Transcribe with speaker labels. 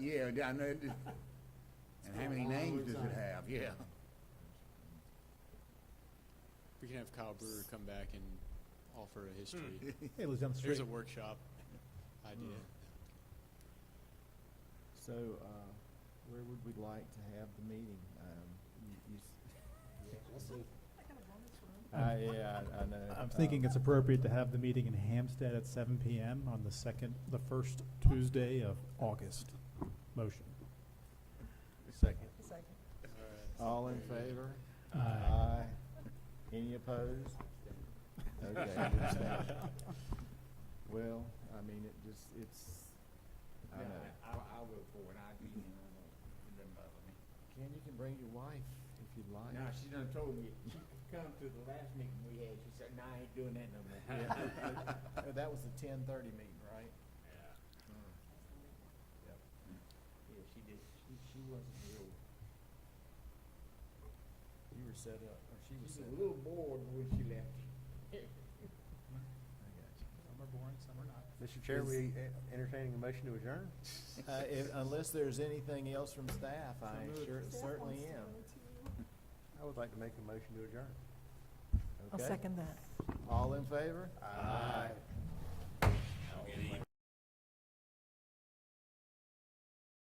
Speaker 1: Yeah, I know, it- and how many
Speaker 2: It's been a long
Speaker 1: names does it
Speaker 2: time.
Speaker 1: have, yeah.
Speaker 3: We can have Kyle Brewer come back and offer a
Speaker 2: Hmm.
Speaker 3: history.
Speaker 4: It lives down the
Speaker 3: There's
Speaker 4: street.
Speaker 3: a workshop idea.
Speaker 4: So, uh, where would we like to have the meeting? Um, you- you s- I, yeah, I- I know.
Speaker 5: I'm thinking
Speaker 4: Um,
Speaker 5: it's appropriate to have the meeting in Hampstead at seven PM on the second, the first Tuesday of August. Motion.
Speaker 4: Uh, Second.
Speaker 3: All right.
Speaker 4: All in favor?
Speaker 5: Aye.
Speaker 4: Any opposed? Okay, we abstain. Well, I mean, it just, it's, I
Speaker 2: Yeah,
Speaker 4: know.
Speaker 2: I, I will for it, I agree, you know, it doesn't bother me.
Speaker 4: Ken, you can bring your wife if you'd like.
Speaker 2: Now, she done told me, she come to the last meeting we had, she said, nah, I ain't doing that no more.
Speaker 4: Yeah. Oh, That was the ten thirty meeting, right? Hmm. Yep.
Speaker 2: Yeah, she did, she, she wasn't real,
Speaker 4: You were set up, or she
Speaker 2: she
Speaker 4: was
Speaker 2: was
Speaker 4: set
Speaker 2: a
Speaker 4: up.
Speaker 2: little bored when she left.
Speaker 4: I got you.
Speaker 5: Some are boring, some are not.
Speaker 6: Mr. Chair, we entertaining a motion to adjourn?
Speaker 4: Uh, if, unless there's anything else from staff, I sure, certainly am.
Speaker 6: I would like to make a motion to adjourn.
Speaker 7: I'll
Speaker 4: Okay.
Speaker 7: second that.
Speaker 4: All in favor?
Speaker 6: Aye.